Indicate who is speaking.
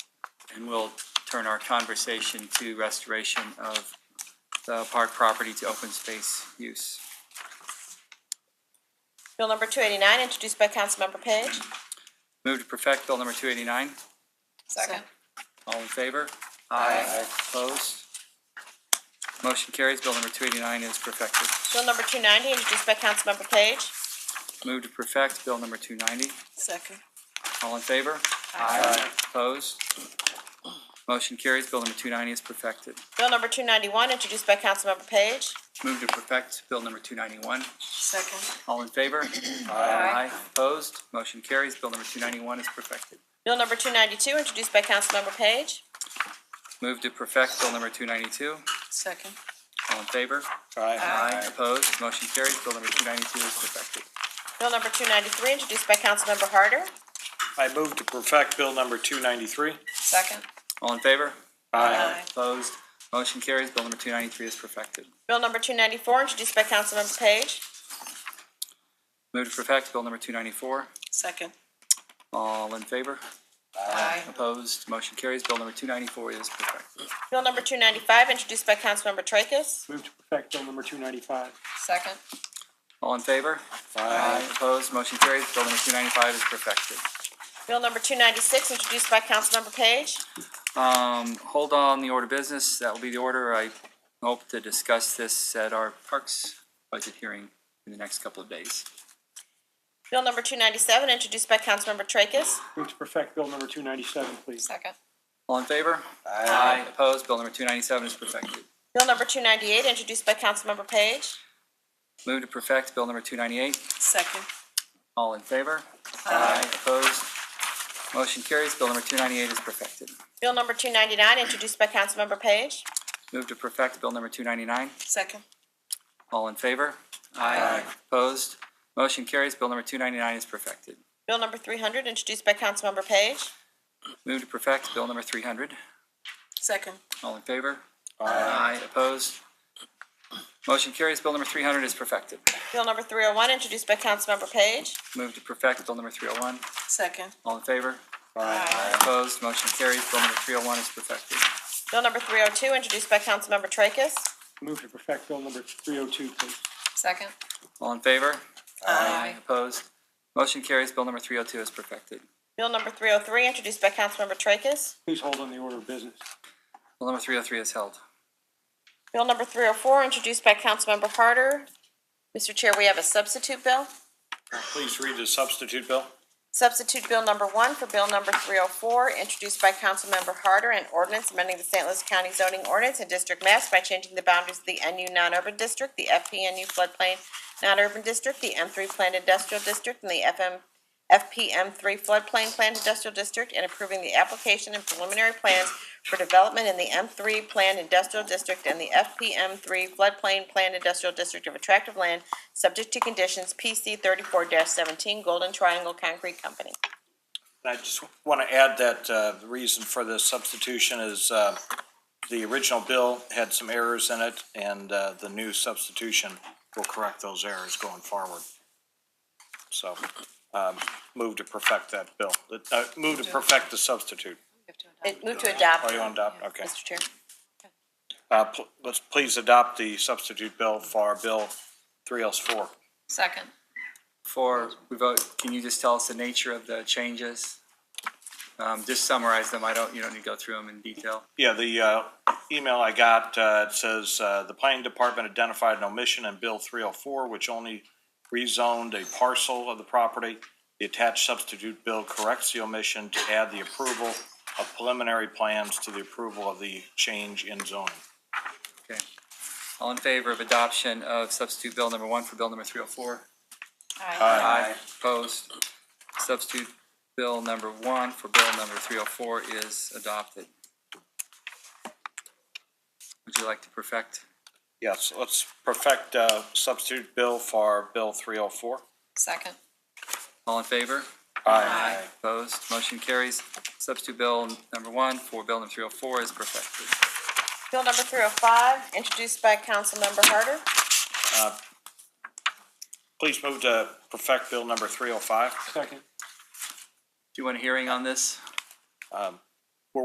Speaker 1: And we'll turn our conversation to restoration of the park property to open space use.
Speaker 2: Bill number two eighty-nine, introduced by Councilmember Page.
Speaker 1: Move to perfect Bill number 289.
Speaker 2: Second.
Speaker 1: All in favor? Aye. Opposed? Motion carries. Bill number 289 is perfected.
Speaker 2: Bill number two ninety, introduced by Councilmember Page.
Speaker 1: Move to perfect Bill number 290.
Speaker 2: Second.
Speaker 1: All in favor? Aye. Opposed? Motion carries. Bill number 290 is perfected.
Speaker 2: Bill number two ninety-one, introduced by Councilmember Page.
Speaker 1: Move to perfect Bill number 291.
Speaker 2: Second.
Speaker 1: All in favor? Aye. Opposed? Motion carries. Bill number 291 is perfected.
Speaker 2: Bill number two ninety-two, introduced by Councilmember Page.
Speaker 1: Move to perfect Bill number 292.
Speaker 2: Second.
Speaker 1: All in favor? Aye. Opposed? Motion carries. Bill number 292 is perfected.
Speaker 2: Bill number two ninety-three, introduced by Councilmember Harder.
Speaker 3: I move to perfect Bill number 293.
Speaker 2: Second.
Speaker 1: All in favor?
Speaker 3: Aye.
Speaker 1: Opposed? Motion carries. Bill number 293 is perfected.
Speaker 2: Bill number two ninety-four, introduced by Councilmember Page.
Speaker 1: Move to perfect Bill number 294.
Speaker 2: Second.
Speaker 1: All in favor?
Speaker 2: Aye.
Speaker 1: Opposed? Motion carries. Bill number 294 is perfected.
Speaker 2: Bill number two ninety-five, introduced by Councilmember Tracus.
Speaker 3: Move to perfect Bill number 295.
Speaker 2: Second.
Speaker 1: All in favor? Aye. Opposed? Motion carries. Bill number 295 is perfected.
Speaker 2: Bill number two ninety-six, introduced by Councilmember Page.
Speaker 1: Um, hold on the order of business. That will be the order. I hope to discuss this at our Parks budget hearing in the next couple of days.
Speaker 2: Bill number two ninety-seven, introduced by Councilmember Tracus.
Speaker 3: Move to perfect Bill number 297, please.
Speaker 2: Second.
Speaker 1: All in favor? Aye. Opposed? Bill number 297 is perfected.
Speaker 2: Bill number two ninety-eight, introduced by Councilmember Page.
Speaker 1: Move to perfect Bill number 298.
Speaker 2: Second.
Speaker 1: All in favor? Aye. Opposed? Motion carries. Bill number 298 is perfected.
Speaker 2: Bill number two ninety-nine, introduced by Councilmember Page.
Speaker 1: Move to perfect Bill number 299.
Speaker 2: Second.
Speaker 1: All in favor? Aye. Opposed? Motion carries. Bill number 299 is perfected.
Speaker 2: Bill number three hundred, introduced by Councilmember Page.
Speaker 1: Move to perfect Bill number 300.
Speaker 2: Second.
Speaker 1: All in favor? Aye. Opposed? Motion carries. Bill number 300 is perfected.
Speaker 2: Bill number three oh one, introduced by Councilmember Page.
Speaker 1: Move to perfect Bill number 301.
Speaker 2: Second.
Speaker 1: All in favor? Aye. Opposed? Motion carries. Bill number 301 is perfected.
Speaker 2: Bill number three oh two, introduced by Councilmember Tracus.
Speaker 3: Move to perfect Bill number 302, please.
Speaker 2: Second.
Speaker 1: All in favor? Aye. Opposed? Motion carries. Bill number 302 is perfected.
Speaker 2: Bill number three oh three, introduced by Councilmember Tracus.
Speaker 3: Please hold on the order of business.
Speaker 1: Bill number 303 is held.
Speaker 2: Bill number three oh four, introduced by Councilmember Harder. Mr. Chair, we have a substitute bill.
Speaker 3: Please read the substitute bill.
Speaker 2: Substitute Bill Number 1 for Bill Number 304, introduced by Councilmember Harder, an ordinance amending the St. Louis County zoning ordinance and district maps by changing the boundaries of the NU non-urban district, the FPNU floodplain non-urban district, the M3 planned industrial district, and the FM, FPM3 floodplain planned industrial district, and approving the application and preliminary plans for development in the M3 planned industrial district and the FPM3 floodplain planned industrial district of attractive land, subject to conditions PC 34-17 Golden Triangle Concrete Company.
Speaker 4: I just want to add that uh, the reason for this substitution is uh, the original bill had some errors in it, and uh, the new substitution will correct those errors going forward. So um, move to perfect that bill, Uh, move to perfect the substitute.
Speaker 2: It moved to adopt,
Speaker 4: Are Oh, you on adopt? Okay.
Speaker 2: Mr. Chair.
Speaker 4: Uh, pl- Let's please adopt the substitute bill for Bill 304.
Speaker 2: Second.
Speaker 1: Before we vote, can you just tell us the nature of the changes? Um, Just summarize them. I don't, you don't need to go through them in detail.
Speaker 4: Yeah, the uh, email I got, uh, it says, uh, "The planning department identified an omission in Bill 304, which only rezoned a parcel of the property. The attached substitute bill corrects the omission to add the approval of preliminary plans to the approval of the change in zoning."
Speaker 1: Okay. All in favor of adoption of substitute bill number one for bill number 304? Aye. Opposed? Substitute bill number one for bill number 304 is adopted. Would you like to perfect?
Speaker 4: Yes, let's perfect uh, substitute bill for Bill 304.
Speaker 2: Second.
Speaker 1: All in favor?
Speaker 4: Aye.
Speaker 1: Opposed? Motion carries. Substitute bill number one for bill number 304 is perfected.
Speaker 2: Bill number three oh five, introduced by Councilmember Harder.
Speaker 4: Please move to oh perfect Bill number 305.
Speaker 3: Second.
Speaker 1: Do you want a hearing on this?
Speaker 4: Um,